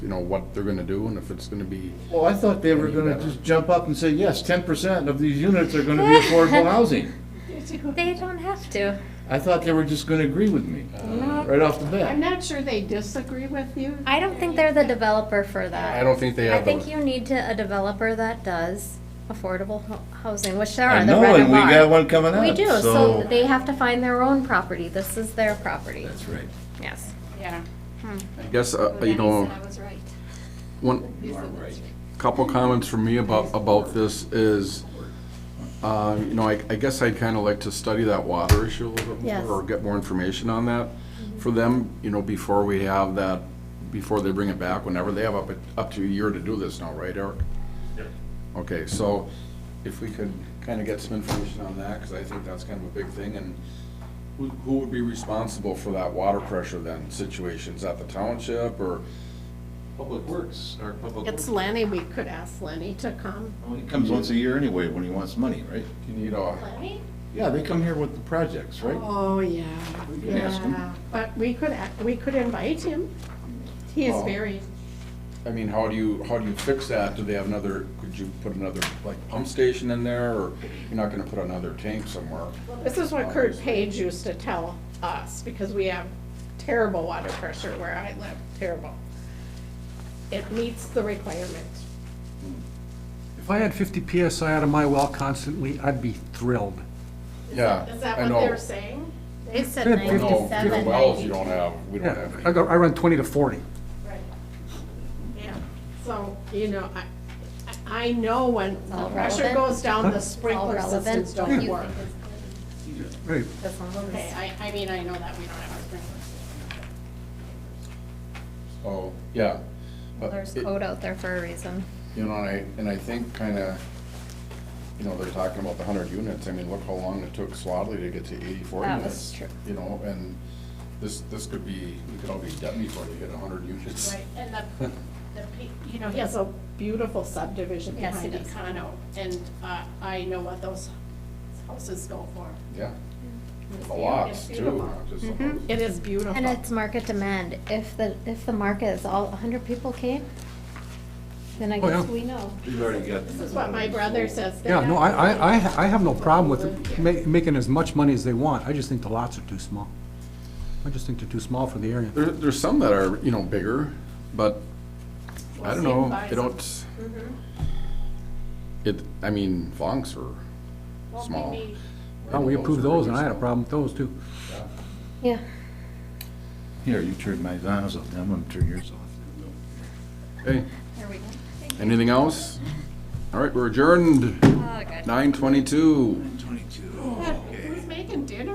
know, what they're gonna do and if it's gonna be, Well, I thought they were gonna just jump up and say, yes, ten percent of these units are gonna be affordable housing. They don't have to. I thought they were just gonna agree with me, No, right off the I'm bat. not sure they disagree with you. I don't think they're the developer for I that. don't think they I have think the, you need to, a developer that does affordable ho- housing, which there I are, the know, red and we got are. one coming up, so. We do, so they have to find their own property. This is their property, That's right. yes. Yeah. I guess, uh, you know, I was right. one, couple comments from me about, about this is, uh, you know, I, I guess I'd kind of like to study that water issue a little bit Yes. more, or get more information on that for them, you know, before we have that, before they bring it back, whenever they have up, up to a year to do this now, right, Eric? Yep. Okay, so if we could kind of get some information on that, because I think that's kind of a big thing, and who, who would be responsible for that water pressure then situation? Is that the township or? Public Works, our Public It's Works, Lenny, we could ask Lenny to come. Well, He comes once a year anyway when he wants money, right? You need a. Yeah, they come here with the projects, right? Oh, yeah, We can ask him. yeah, but we could, a- we could invite him. He is Oh. very, I mean, how do you, how do you fix that? Do they have another, could you put another, like, pump station in there, or you're not gonna put another tank somewhere? this is what Kurt Page used to tell us, because we have terrible water pressure where I live, terrible. It meets the requirement. If I had 50 PSI out of my well constantly, I'd be thrilled. Yeah, Is that I what know. they're saying? They said Good, 50 No, the wells you don't have, we don't Yeah, have I any. go, I run 20 to 40. Right. Yeah, so, you know, I, I- I know when the all pressure relevant. goes down, the It's sprinkler all relevant. systems don't work. Right. This one was- Okay, I, I mean, I know that we don't have a sprinkler system. Oh, yeah. But There's it- code out there for a reason. You know, and I, and I think kinda, you know, they're talking about the hundred units, I mean, look how long it took Swadley to get to eighty-four That units. was true. You know, and this, this could be, we could all be dead before they hit hundred units. Right, and the, the, pe- you know, he has a beautiful subdivision Yes, behind he does. Econo, and uh, I know what those houses go for. Yeah, It's a beau- lot, it's too, beautiful. not just a Mm-hmm. lot. It is beautiful. And it's market demand. If the, if the market is all, 100 people came, then I Oh, guess yeah. we know. we've already got. This is what my brother says. They Yeah, no, I, have- I, I I have no problem with ma- making as much money as they want. I just think the lots are too small. I just think they're too small for the area. There, there's some that are, you know, bigger, but I don't We'll see know, if they don't. Mm-hmm. It, I mean, Vonks are Well, small. maybe- Oh, we approved those and I had a problem with those too. Yeah. Here, you turn my zones off, I'm gonna turn yours off. Okay. Anything else? All right, we're adjourned, Oh, good. nine twenty-two. Twenty-two. Who's making dinner?